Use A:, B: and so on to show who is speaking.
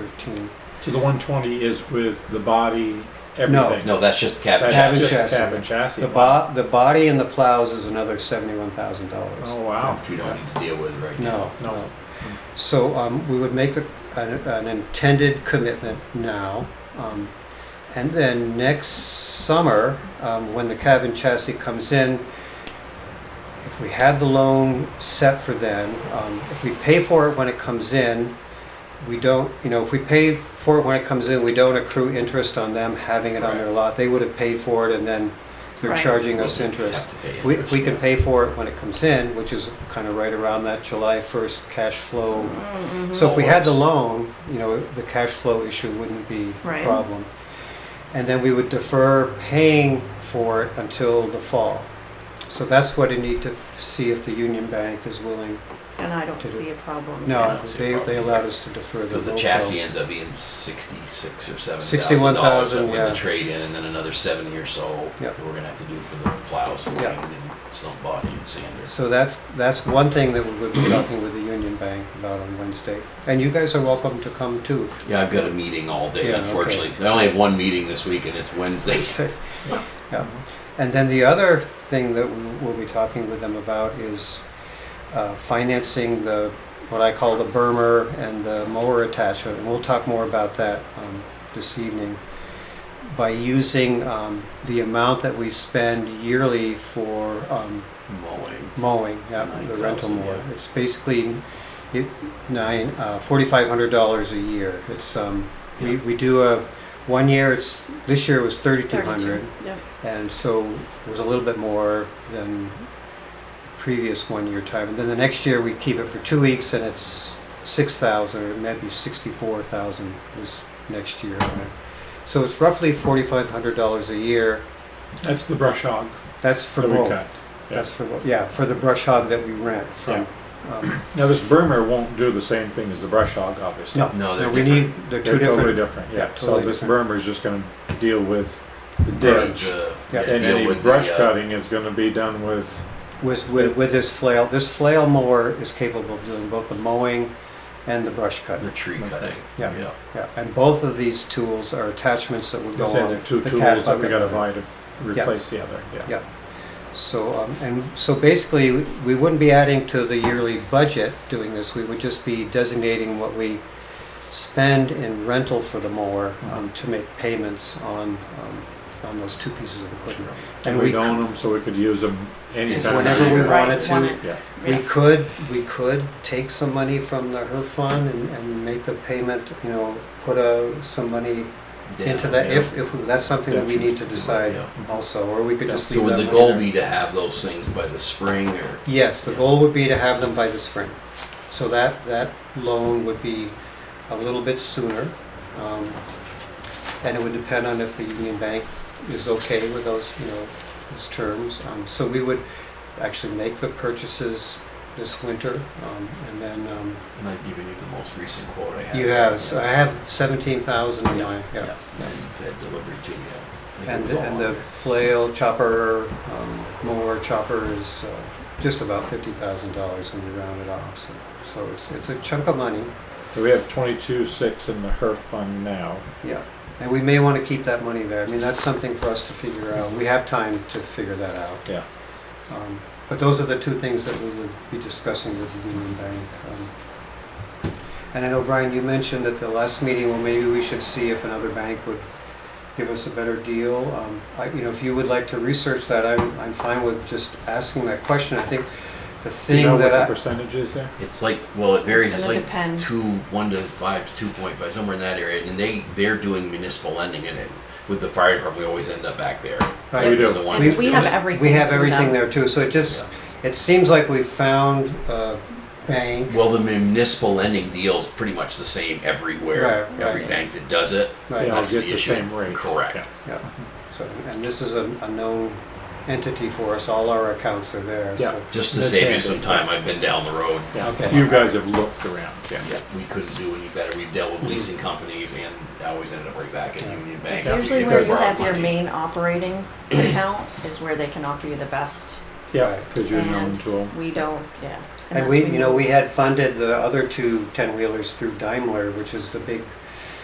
A: thirteen.
B: So the 120 is with the body, everything?
C: No, that's just the cab
B: That's
A: Cab and
C: chassis.
B: just the
A: chassis.
B: cab and chassis.
A: The bo- the body and the plows is another seventy-one thousand
B: Oh,
A: dollars.
B: wow.
C: Which we don't need to deal with right now.
A: No,
B: No.
A: no. So, um, we would make a, an, an intended commitment now. Um, and then next summer, um, when the cabin chassis comes in, if we had the loan set for then, um, if we pay for it when it comes in, we don't, you know, if we pay for it when it comes in, we don't accrue interest on them having it on their lot. They would have paid for it and then they're
D: Right.
A: charging us
C: We'll
A: interest.
C: have to pay
A: We,
C: interest.
A: we can pay for it when it comes in, which is kind of right around that July 1st cash flow.
D: Mm-hmm.
A: So if we had the loan, you know, the cash flow issue wouldn't be a
D: Right.
A: problem. And then we would defer paying for it until the fall. So that's what I need to see if the Union Bank is willing.
D: And I don't
A: To do-
D: see a problem.
A: No,
C: don't see a
A: they,
C: problem.
A: they allowed us to defer the.
C: Because the
A: loan
C: chassis
A: bill.
C: ends up being sixty-six or seven thousand dollars
A: $61,000,
C: with
A: yeah.
C: the trade-in, and then another seventy or so
A: Yep.
C: that we're gonna have to do for the plows and
A: Yeah.
C: wind and stump body and sanders.
A: So that's, that's one thing that we would be talking with the Union Bank about on Wednesday. And you guys are welcome to come too.
C: Yeah, I've got a meeting all day,
A: Yeah, okay.
C: unfortunately. I only have one meeting this week, and it's Wednesday.
A: Yeah. And then the other thing that we- we'll be talking with them about is uh, financing the, what I call the bermer and the mower attachment. And we'll talk more about that um, this evening. By using um, the amount that we spend yearly for um,
C: Mowing.
A: mowing, yeah, the rental
C: 9,000,
A: mower.
C: yeah.
A: It's basically it, nine, uh, forty-five hundred dollars a year. It's, um, we,
C: Yeah.
A: we do a, one year, it's, this year it was thirty-two hundred.
D: 32, yeah.
A: And so it was a little bit more than previous one-year time. And then the next year, we keep it for two weeks and it's six thousand, or maybe sixty-four thousand this next year. So it's roughly forty-five hundred dollars a year.
B: That's the brush hog
A: That's for
B: that we
A: both.
B: cut.
A: That's for, both. yeah, for the brush hog that we rent from. um,
B: Now, this Burmer won't do the same thing as the brush hog, obviously.
A: No,
C: No, they're
A: no, we need,
C: different.
A: they're
B: They're
A: two
B: totally
A: different.
B: different, yeah.
A: yeah,
B: So
A: totally
B: this
A: different.
B: Burmer is just gonna deal with the
C: Burn
B: ditch.
C: the-
A: Yeah.
C: yeah,
B: And
C: deal
B: any
C: with the,
B: brush
C: uh,
B: cutting is gonna be done with,
A: With, with, with this flail, this flail mower is capable of doing both the mowing and the brush cutting.
C: The tree
B: Okay.
C: cutting.
A: Yeah. Yeah, and both of these tools are attachments that would go
B: you say,
A: on.
B: the two
A: the
B: tools
A: cat
B: that we
A: bucket.
B: gotta buy to replace the other, yeah.
A: Yeah. So, um, and so basically, we wouldn't be adding to the yearly budget doing this. We would just be designating what we spend in rental for the mower um, to make payments on, um, on those two pieces of equipment.
B: And
A: we
B: we'd own them so we could use them anytime.
C: Whenever we
D: Right,
A: wanted to,
D: want it,
B: yeah.
A: We
D: yeah.
A: could, we could take some money from the HERF fund and, and make the payment, you know, put a, some money into
C: Down,
A: that,
C: yeah.
A: if, if, that's something that we need to decide
C: Yeah.
A: also, or we could just
C: So
A: leave
C: would
A: that
C: the
A: money
C: goal
A: there.
C: be to have those things by the spring or?
A: Yes, the goal would be to have them by the spring. So that, that loan would be a little bit sooner. um, And it would depend on if the Union Bank is okay with those, you know, those terms. Um, So we would actually make the purchases this winter, um, and then, um,
C: And I've given you the most recent quote I have.
A: you have, so I have seventeen thousand in my, yeah.
C: And that delivery too, yeah. I think it
A: And,
C: was all
A: and
C: on
A: the
C: there.
A: flail chopper, um, mower chopper is uh, just about fifty thousand dollars when you round it off, so, so it's, it's a chunk of money,
B: So we have twenty-two, six in the HERF fund now.
A: yeah. And we may wanna keep that money there, I mean, that's something for us to figure out, we have time to figure that out.
B: Yeah.
A: Um, But those are the two things that we would be discussing with the Union Bank. um. And I know, Brian, you mentioned at the last meeting, well, maybe we should see if another bank would give us a better deal. Um, I, you know, if you would like to research that, I'm, I'm fine with just asking that question. I think the
B: Do you
A: thing
B: know what
A: that
B: the
A: I,
B: percentage is there?
C: It's like, well, it varies, it's
D: It's gonna
C: like
D: depend.
C: two, one to five to two point five, somewhere in that area, and they, they're doing municipal lending in it. With the fire department, we always end up back there.
A: Right.
C: Those
B: We
C: are
B: do.
C: the ones
D: And
C: that
D: we
C: do
D: have
C: it.
D: everything.
A: we have
D: from
A: everything
D: them.
A: there too, so it just, it seems like we've found a bank.
C: Well, the municipal lending deal's pretty much the same everywhere,
A: Right,
C: every
A: right.
C: bank that does it.
A: Right.
B: Yeah,
C: That's
B: get
C: the
B: the
C: issue.
B: same rate.
C: Correct.
B: Yeah.
A: Yeah, so, and this is a, a known entity for us, all our accounts are there,
B: Yeah.
A: so.
C: Just to
B: That's
C: save you
B: handy.
C: some time, I've been down the road.
A: Okay.
B: Yeah, you guys have looked around, yeah.
C: We couldn't do any better. We've dealt
A: Mm-hmm.
C: with leasing companies and I always ended up right back at Union Bank.
D: It's
C: after
D: usually
C: we
D: where you
C: borrowed
D: have your
C: money.
D: main operating account is where they can offer you the best
B: Yeah, because you're known
D: And
B: to them.
D: We don't, yeah.
A: And
D: unless
A: we, you know,
D: move.
A: we had funded the other two ten-wheelers through Daimler, which is the big